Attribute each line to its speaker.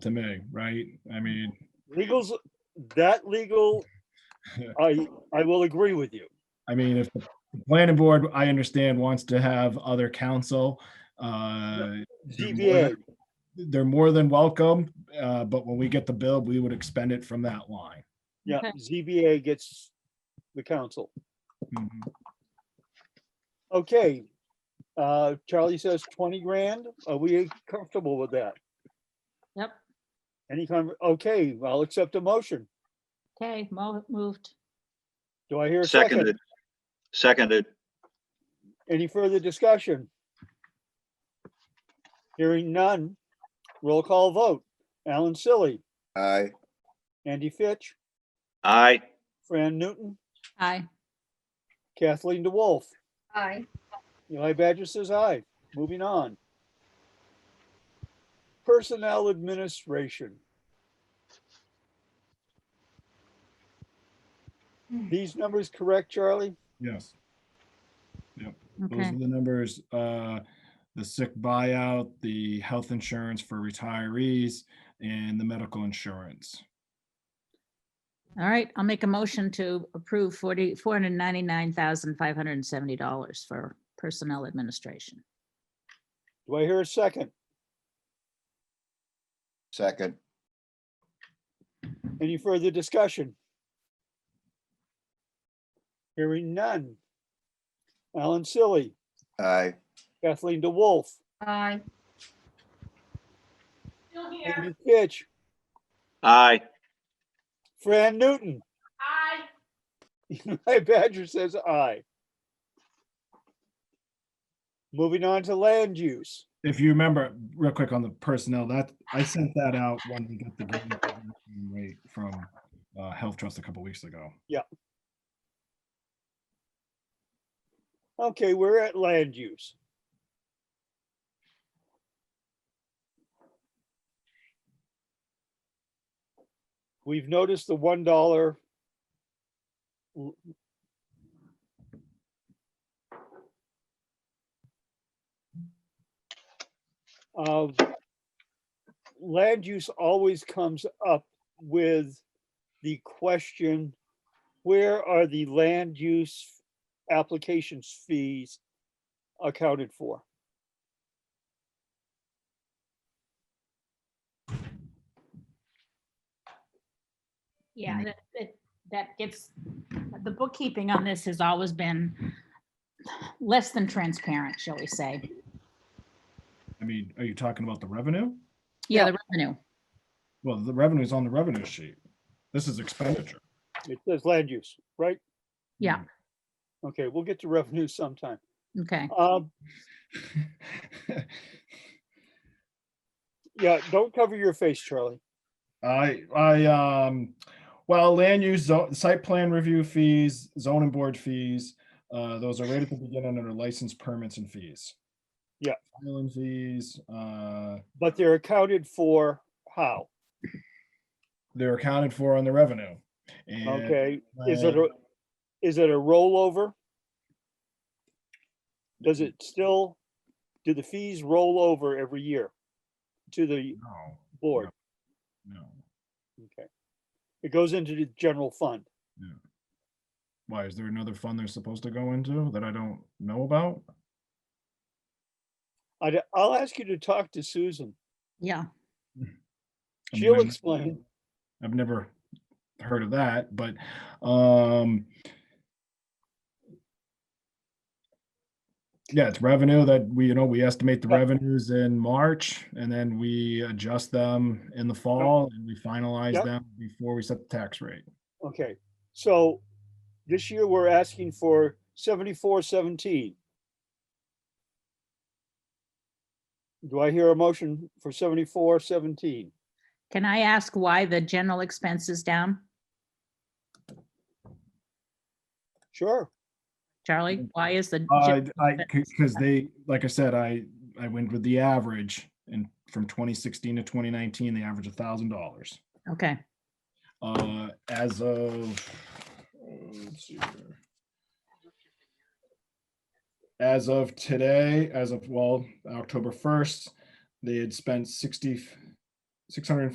Speaker 1: to me, right? I mean,
Speaker 2: Legal's, that legal, I, I will agree with you.
Speaker 1: I mean, if the planning board, I understand, wants to have other counsel, uh,
Speaker 2: ZBA,
Speaker 1: they're more than welcome, uh, but when we get the bill, we would expend it from that line.
Speaker 2: yeah,
Speaker 3: Okay.
Speaker 2: ZBA gets the council.
Speaker 1: Mhm.
Speaker 2: Okay, uh, Charlie says twenty grand. Are we comfortable with that?
Speaker 3: Yep,
Speaker 2: Any kind, okay, I'll accept a motion.
Speaker 3: okay, mo- moved.
Speaker 2: Do I hear a second?
Speaker 4: Seconded. Seconded.
Speaker 2: Any further discussion? Hearing none. Roll call vote. Alan Silly,
Speaker 5: aye,
Speaker 2: Andy Fitch,
Speaker 4: Aye.
Speaker 2: Fran Newton,
Speaker 3: Aye.
Speaker 2: Kathleen DeWolf.
Speaker 3: Aye.
Speaker 2: Eli Badger says aye. Moving on. Personnel Administration. These numbers correct, Charlie?
Speaker 1: Yes, those
Speaker 3: Okay,
Speaker 1: are the numbers, uh, the sick buyout, the health insurance for retirees, and the medical insurance.
Speaker 3: all right, I'll make a motion to approve forty, four hundred ninety-nine thousand, five hundred and seventy dollars for personnel administration.
Speaker 2: Do I hear a second?
Speaker 5: second,
Speaker 2: Any further discussion? Hearing none. Alan Silly,
Speaker 5: aye,
Speaker 2: Kathleen DeWolf,
Speaker 3: Aye.
Speaker 2: Andy Fitch,
Speaker 4: Aye.
Speaker 2: Fran Newton. Aye. Eli Badger says aye. Moving on to land use.
Speaker 1: If you remember, real quick on the personnel, that, I sent that out when we got the green rate from, uh, Health Trust a couple weeks ago.
Speaker 2: Okay, we're at land use. We've noticed the one dollar. Of land use always comes up with the question, where are the land use applications fees accounted for?
Speaker 3: Yeah, that, that- that gets, the bookkeeping on this has always been less than transparent, shall we say.
Speaker 1: I mean, are you talking about the revenue?
Speaker 3: Yeah, the revenue.
Speaker 1: Well, the revenue is on the revenue sheet. This is expenditure.
Speaker 2: It says land use, right?
Speaker 3: Yeah.
Speaker 2: Okay, we'll get to revenue sometime.
Speaker 3: Okay,
Speaker 2: Um, yeah, don't cover your face, Charlie.
Speaker 1: I, I, um, well, land use, zo- site plan review fees, zoning board fees, uh, those are right at the beginning under license permits and fees.
Speaker 2: Yeah.
Speaker 1: Filing fees, uh,
Speaker 2: But they're accounted for how?
Speaker 1: they're accounted for on the revenue. And,
Speaker 2: Okay, is it,
Speaker 1: uh,
Speaker 2: a is it a rollover? Does it
Speaker 1: Mm-hmm.
Speaker 2: still, do the fees roll over every year to the
Speaker 1: No,
Speaker 2: board?
Speaker 1: no.
Speaker 2: Okay. It goes into the general fund.
Speaker 1: Why, is there another fund they're supposed to go into that I don't know about?
Speaker 2: I, will ask you to talk to Susan.
Speaker 3: yeah,
Speaker 1: I mean,
Speaker 2: She'll
Speaker 1: I'm-
Speaker 2: explain.
Speaker 1: I've never heard of that, but um yeah, it's revenue that we, you know, we estimate the
Speaker 2: Yeah.
Speaker 1: revenues in March and then we adjust them in the fall and we finalize
Speaker 2: Yep.
Speaker 1: them before we set the tax rate.
Speaker 2: Okay, so this year we're asking for seventy-four seventeen. Do I hear a motion for seventy-four seventeen?
Speaker 3: can I ask why the general expense is down,
Speaker 2: Sure,
Speaker 3: Charlie? Why is the?
Speaker 1: I,
Speaker 3: gen-
Speaker 1: I, because they, like I said, I, I went with the average and from 2016 to 2019, they averaged a thousand dollars.
Speaker 3: Okay,
Speaker 1: Uh, as of, uh, let's see here. As of today, as of, well, October first, they had spent sixty, six hundred and